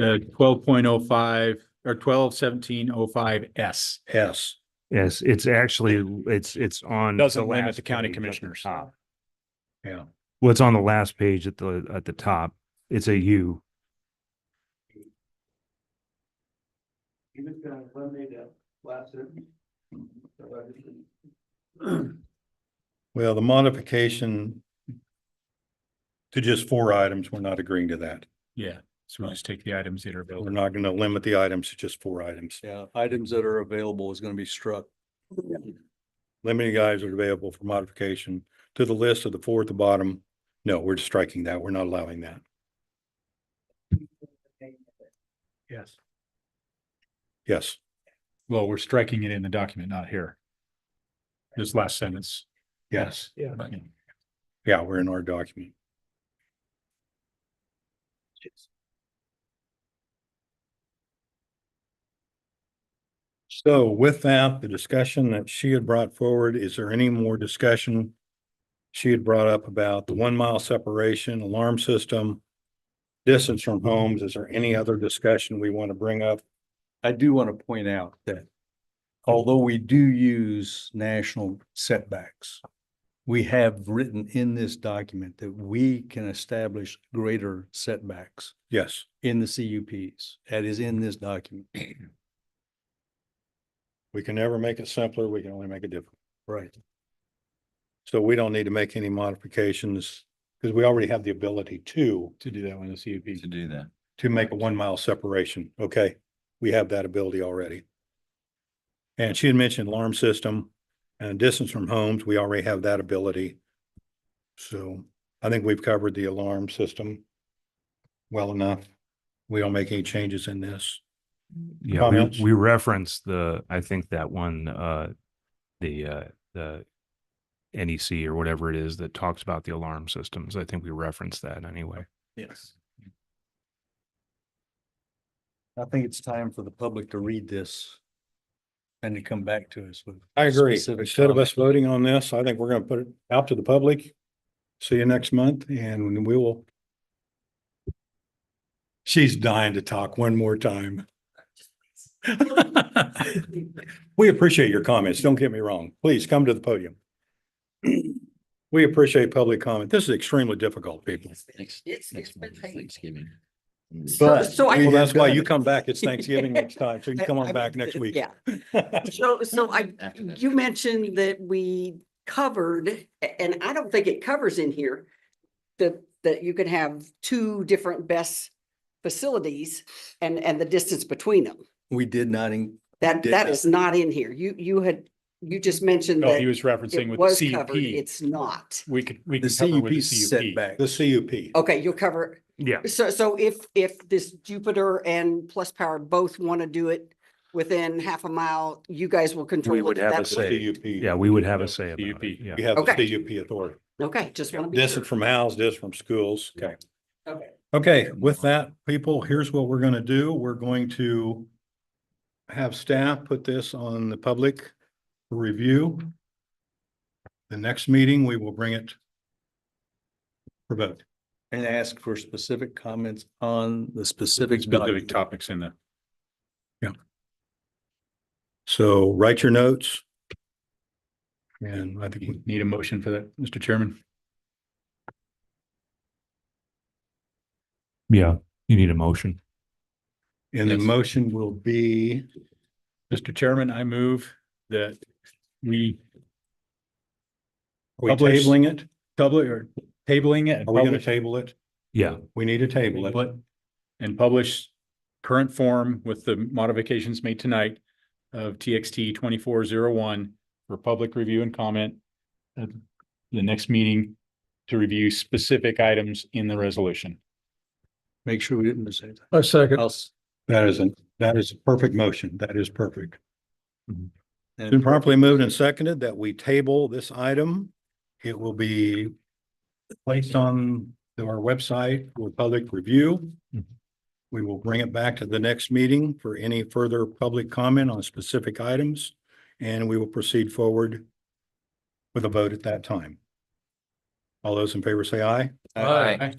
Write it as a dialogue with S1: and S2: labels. S1: Uh, twelve point oh five or twelve seventeen oh five S.
S2: S.
S3: Yes, it's actually, it's, it's on.
S1: Doesn't
S3: the
S1: limit
S3: last
S1: the county
S3: page at the
S1: commissioners.
S3: top.
S2: Yeah.
S3: Well, it's on the last page at the, at the top. It's a U.
S4: He was gonna eliminate that last sentence. So I just-
S2: Well, the modification to just four items, we're not agreeing to that.
S1: Yeah, so we just take the items that are
S2: We're
S1: available.
S2: not going to limit the items to just four items.
S5: Yeah, items that are available is gonna be struck.
S2: Limiting guys are available for modification to the list of the four at the bottom. No, we're striking that. We're not allowing that.
S1: Yes.
S2: Yes.
S1: Well, we're striking it in the document, not here. This last sentence.
S2: Yes.
S1: Yeah.
S2: Yeah, we're in our document. So with that, the discussion that she had brought forward, is there any more discussion? She had brought up about the one mile separation, alarm system, distance from homes. Is there any other discussion we want to bring up?
S5: I do want to point out that although we do use national setbacks, we have written in this document that we can establish greater setbacks
S2: Yes.
S5: in the CUPs. That is in this document.
S2: We can never make it simpler. We can only make it difficult.
S5: Right.
S2: So we don't need to make any modifications because we already have the ability to,
S1: To do that one, the CUP.
S6: to do that.
S2: to make a one mile separation. Okay, we have that ability already. And she had mentioned alarm system and distance from homes. We already have that ability. So I think we've covered the alarm system well enough. We don't make any changes in this.
S3: Yeah,
S2: Comments?
S3: we, we reference the, I think that one, uh, the, uh, the NEC or whatever it is that talks about the alarm systems. I think we reference that anyway.
S5: Yes. I think it's time for the public to read this and to come back to us with.
S2: I agree.
S5: specific
S2: Instead of
S5: comments.
S2: us voting on this, I think we're going to put it out to the public. See you next month and we will. She's dying to talk one more time. We appreciate your comments. Don't get me wrong. Please come to the podium. We appreciate public comment. This is extremely difficult, people.
S6: Next,
S7: It's, it's
S6: next
S7: been
S6: month,
S7: painful.
S6: Thanksgiving.
S7: But- So I-
S2: Well, that's why you come back. It's Thanksgiving next time. So you come
S7: I- I
S2: on back
S7: mean,
S2: next
S7: th-
S2: week.
S7: Yeah, so, so I,
S6: After that.
S7: you mentioned that we covered, a- and I don't think it covers in here, that, that you can have two different best facilities and, and the distance between them.
S5: We did not, in-
S7: That,
S5: Did
S7: that
S5: not.
S7: is not in here. You, you had, you just mentioned
S1: No, he
S7: that
S1: was referencing
S7: it
S1: with
S7: was
S1: the
S7: covered.
S1: CUP.
S7: It's not.
S1: We could, we
S5: the
S1: could cover with
S5: CUP
S1: the CUP.
S5: setback.
S2: The CUP.
S7: Okay, you'll cover,
S3: Yeah.
S7: so, so if, if this Jupiter and Plus Power both want to do it within half a mile, you guys will control.
S3: We would
S7: it
S3: have a
S7: that way?
S3: say.
S2: CUP.
S3: Yeah, we would have
S1: Yeah,
S3: a say about
S1: CUP.
S3: it. Yeah.
S2: You have the
S7: Okay.
S2: CUP authority.
S7: Okay, just want to be sure.
S2: Distance from houses, distance from schools. Okay.
S7: Okay.
S2: Okay, with that, people, here's what we're gonna do. We're going to have staff put this on the public for review. The next meeting, we will bring it for vote.
S5: and ask for specific comments on the specifics.
S1: Specific topics in the.
S2: So write your notes. And I think,
S1: You
S2: we-
S1: Need a motion for that, Mr. Chairman?
S3: Yeah, you need a motion.
S2: and the
S1: Yes.
S2: motion will be,
S1: Mr. Chairman, I move that we
S2: are we
S1: Publish.
S2: tabling it?
S1: public or tabling it. and
S2: Are we gonna
S1: publish-
S2: table it?
S3: Yeah,
S2: We need to table it.
S1: Table it And publish current form with the modifications made tonight of TXT twenty-four zero one for public review and comment at the next meeting to review specific items in the resolution.
S5: Make sure we didn't miss anything.
S2: A second.
S5: I'll s-
S2: That isn't, that is a perfect motion. That is perfect.
S5: Mm-hmm.
S2: It's Been
S5: and
S2: properly moved and seconded that we table this item. It will be placed on our website for public review.
S3: Mhm.
S2: We will bring it back to the next meeting for any further public comment on specific items, and we will proceed forward with a vote at that time. All those in favor say aye.
S6: All right.